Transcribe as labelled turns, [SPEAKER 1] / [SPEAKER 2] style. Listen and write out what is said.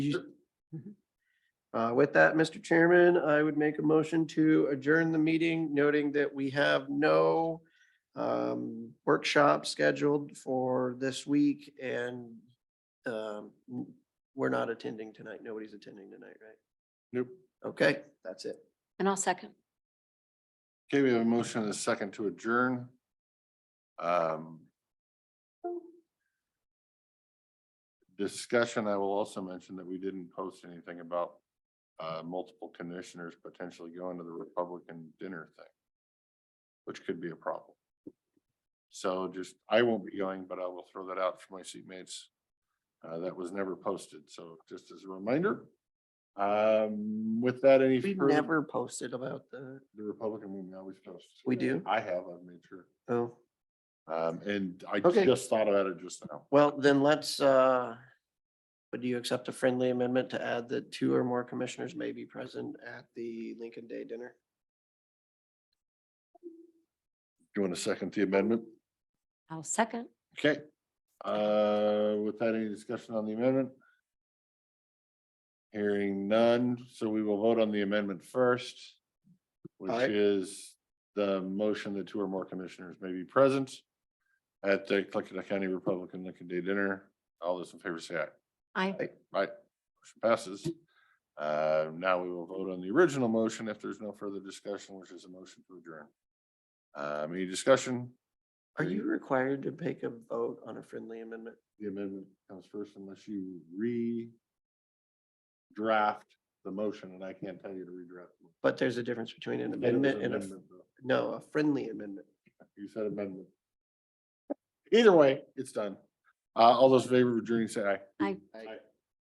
[SPEAKER 1] Uh, With that, Mr. Chairman, I would make a motion to adjourn the meeting, noting that we have no um, workshop scheduled for this week and um, we're not attending tonight. Nobody's attending tonight, right?
[SPEAKER 2] Nope.
[SPEAKER 1] Okay, that's it.
[SPEAKER 3] And I'll second.
[SPEAKER 2] Okay, we have a motion and a second to adjourn. Um, Discussion, I will also mention that we didn't post anything about uh, multiple commissioners potentially going to the Republican dinner thing, which could be a problem. So just, I won't be going, but I will throw that out for my seatmates. Uh, That was never posted, so just as a reminder. Um, With that, any
[SPEAKER 1] We
[SPEAKER 2] further-
[SPEAKER 1] never posted about the,
[SPEAKER 2] the Republican we always post.
[SPEAKER 1] we do?
[SPEAKER 2] I have, I've made sure.
[SPEAKER 1] Oh,
[SPEAKER 2] Um, and I
[SPEAKER 1] Okay.
[SPEAKER 2] just thought about it just now.
[SPEAKER 1] well, then let's, uh, would you accept a friendly amendment to add that two or more commissioners may be present at the Lincoln Day dinner?
[SPEAKER 2] Do you want to second the amendment?
[SPEAKER 3] I'll second.
[SPEAKER 2] Okay. Uh, with that, any discussion on the amendment? Hearing none, so we will vote on the amendment first, which
[SPEAKER 1] Aye.
[SPEAKER 2] is the motion that two or more commissioners may be present at the Clickahaw County Republican Lincoln Day Dinner. All those in favor say aye.
[SPEAKER 3] I,
[SPEAKER 2] Right, motion passes. Uh, now we will vote on the original motion if there's no further discussion, which is a motion to adjourn. Um, any discussion?
[SPEAKER 1] Are you required to take a vote on a friendly amendment?
[SPEAKER 2] The amendment comes first unless you re draft the motion and I can't tell you to redraft. the motion.
[SPEAKER 1] But there's a difference between an
[SPEAKER 2] You said it was
[SPEAKER 1] amendment and a, f-
[SPEAKER 2] amendment, though.
[SPEAKER 1] no, a friendly amendment.
[SPEAKER 2] You said amendment. Either way, it's done. Uh, all those in favor of adjourning, say aye.
[SPEAKER 3] Aye.
[SPEAKER 1] Aye.
[SPEAKER 2] Aye.